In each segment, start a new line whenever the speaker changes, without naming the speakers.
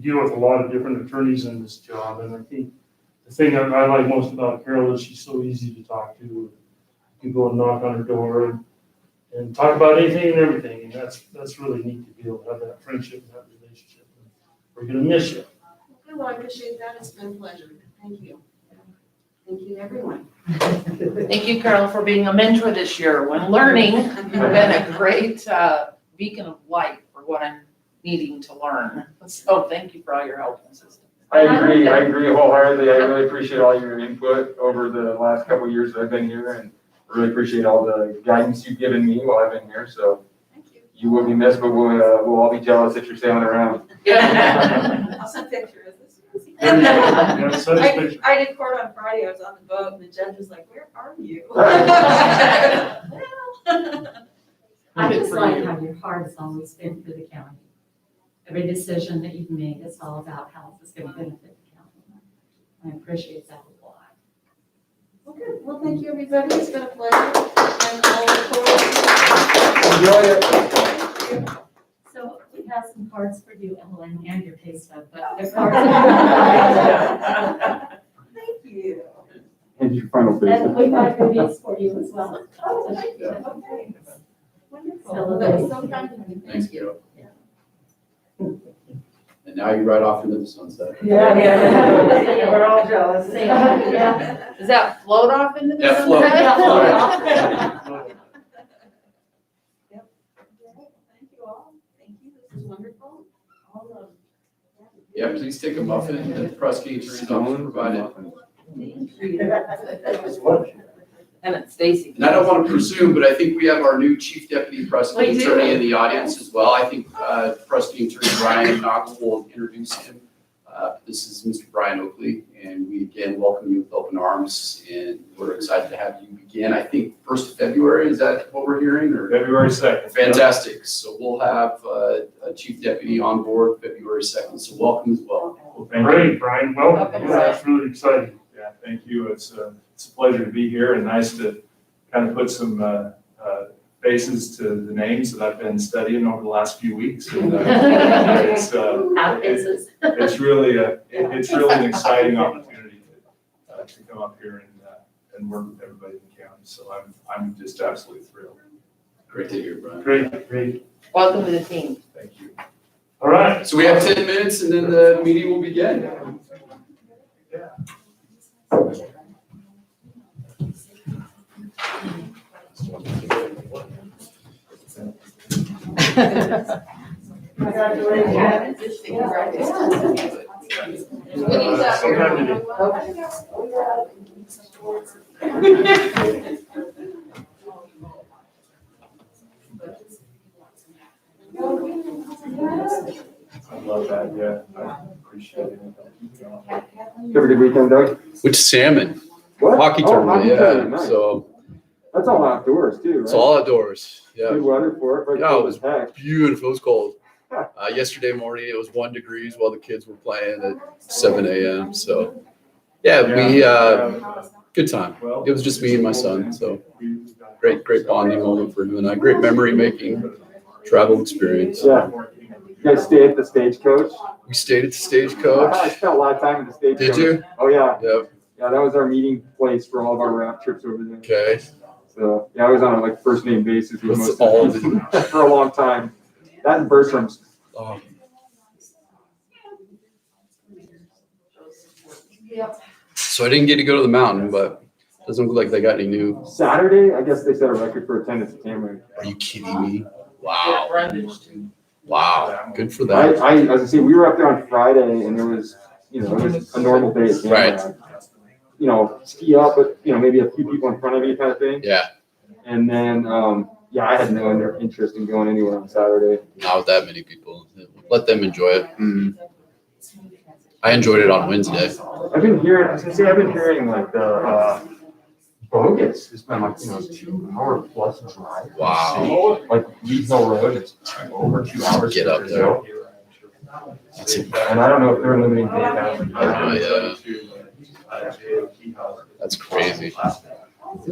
deal with a lot of different attorneys in this job, and I think the thing I, I like most about Carol is she's so easy to talk to. You go and knock on her door and, and talk about anything and everything, and that's, that's really neat to be able to have that friendship and that relationship. We're gonna miss you.
Good, well, I appreciate that. It's been a pleasure. Thank you. Thank you, everyone.
Thank you, Carol, for being a mentor this year when learning. You've
Mm-hmm.
been a great uh, beacon of light for what I'm needing to learn. So thank you for all your help and assistance.
I agree, I agree wholeheartedly. I really appreciate all your input over the last couple of years that I've been here and really appreciate all the guidance you've given me while I've been here, so
Thank you.
you will be missed, but we'll, uh, we'll all be jealous that you're sailing around.
I'll send pictures.
Yeah, send us
I,
pictures.
I did court on Friday. I was on the boat and the judge was like, where are you?
I
Good
just
for
like
you.
how your heart has always been for the county. Every decision that you've made is all about how it's going to benefit the county. I appreciate that a lot.
Well, good. Well, thank you, everybody. It's been a pleasure. And I'll look forward
Enjoy it.
So we have some cards for you, Ellen, and your pay stub, but the cards.
to- Thank you.
And your final
And we got goodies for you as well.
Oh, thank you. Okay. Wonderful.
Celebrate.
That's so kind of you.
Thanks,
Thank you.
Carol. And now you ride off into the sunset.
Yeah, yeah, we're all jealous.
Same, yeah.
Does that float off into the?
That float.
sunset?
That float off.
Yep. Thank you all. Thank you. This is wonderful. All of.
Yeah, please take a muffin that the prosecutor's office provided.
Thank you.
And it's Stacy.
And I don't want to presume, but I think we have our new chief deputy prosecuting
We do.
attorney in the audience as well. I think uh, prosecuting attorney Brian Knox will introduce him. Uh, This is Mr. Brian Oakley, and we again welcome you with open arms, and we're excited to have you begin. I think first of February, is that what we're hearing, or?
February second.
Fantastic. So we'll have uh, a chief deputy on board February 2nd, so welcome as well.
Great, Brian, welcome.
Okay.
Yeah, That's really exciting.
Yeah, thank you. It's a, it's a pleasure to be here and nice to kind of put some uh, uh, faces to the names that I've been studying over the last few weeks. And uh, It's, uh,
Out
it-
faces.
it's really, a- it- it's really an exciting opportunity to, uh, to come up here and, uh, and work with everybody in the county. So I'm, I'm just absolutely thrilled.
Great to hear, Brian.
Great, great.
Welcome to the team.
Thank you.
All right.
So we have 10 minutes and then the meeting will begin.
Congratulations.
Uh, sometime in the-
I love that. Yeah, I appreciate it. Keep going.
Have a good weekend, Doug.
Which salmon?
What?
Hockey
Oh,
tournament,
hockey
yeah.
tournament, nice.
So
That's all outdoors too,
it's
right?
all outdoors. Yeah.
Good weather for it, but
Yeah, it
cold
was
as heck.
Beautiful. It was cold. Uh, yesterday morning it was one degrees while the kids were playing at 7 a.m. So yeah, we uh, good time.
Well,
It was just me and my son. So great, great bonding
bonding.
moment for him and I. Great memory making travel experience.
Yeah. You guys stay at the stagecoach?
We stayed at the
I
stagecoach.
spent a lot of time at the stagecoach.
Did you?
Oh, yeah.
Yep.
Yeah, that was our meeting place for all of our raft trips over there.
Okay.
So yeah, I was on a like first name basis
That's
with most of
all
them for a long time. That and Bertram's.
Oh, so I didn't get to go to the mountain, but doesn't look like they got any new.
Saturday, I guess they set a record for attendance at Tamron.
Are you kidding me? Wow. Wow. Good for
I,
that.
I, as I say, we were up there on Friday and there was, you know, it was a normal day at Tamron. You know, ski up, but you know, maybe a few people in front of you kind of thing.
Yeah.
And then, um, yeah, I had no inter- interest in going anywhere on Saturday.
Not with that many people. Let them enjoy it. I enjoyed it on Wednesday.
I've
啊
been hearing, as I say, I've been hearing like the, uh, bogus. It's been like, you know, two hour plus drive.
Wow.
Like Leeds Hill Road, it's over two hours.
Get up there. That's
And I don't know if they're limiting data.
Oh, yeah.
Uh,
yeah.
That's crazy.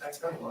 That's crazy.